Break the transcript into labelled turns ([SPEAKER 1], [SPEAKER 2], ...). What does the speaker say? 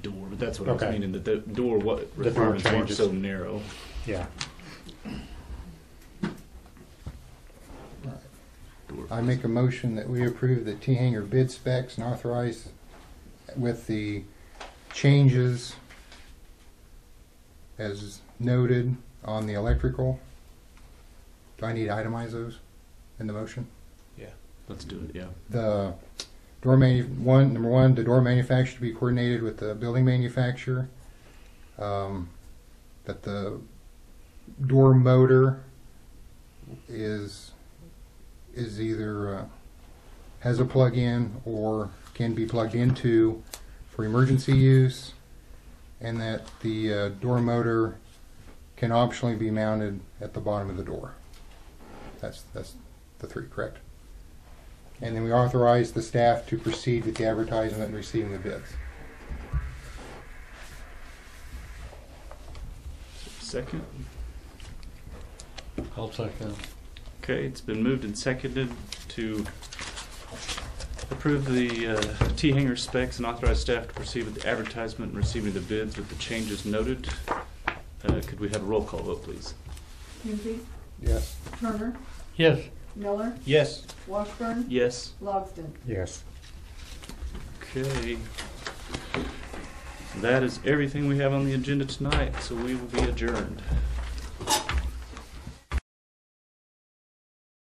[SPEAKER 1] that's what I was
[SPEAKER 2] Okay.
[SPEAKER 1] meaning, that the door, what
[SPEAKER 2] door
[SPEAKER 1] requirements weren't
[SPEAKER 2] changes.
[SPEAKER 1] so narrow.
[SPEAKER 2] Yeah.
[SPEAKER 3] I make a motion that we approve the T-hanger bid specs and authorize with the changes as noted on the electrical. Do I need to itemize those in the motion?
[SPEAKER 1] Let's do it, yeah.
[SPEAKER 3] The door manu, one, number one, the door manufacturer to be coordinated with the building manufacturer. Um, That the door motor is, is either, uh, has a plug-in or can be plugged into for emergency use. And that the uh, door motor can optionally be mounted at the bottom of the door. That's, that's the three, correct? And then we authorize the staff to proceed with the advertisement and receiving the bids.
[SPEAKER 1] Second?
[SPEAKER 4] I'll second.
[SPEAKER 1] Okay, it's been moved and seconded to approve the uh, T-hanger specs and authorize staff to proceed with the advertisement and receiving the bids with the changes noted. Uh, Could we have a roll call vote, please?
[SPEAKER 5] Hensy,
[SPEAKER 3] Yes.
[SPEAKER 5] Turner,
[SPEAKER 4] Yes,
[SPEAKER 5] Miller,
[SPEAKER 1] Yes.
[SPEAKER 5] Washburn,
[SPEAKER 1] Yes?
[SPEAKER 5] Logsdon.
[SPEAKER 2] Yes.
[SPEAKER 1] Okay. That is everything we have on the agenda tonight, so we will be adjourned.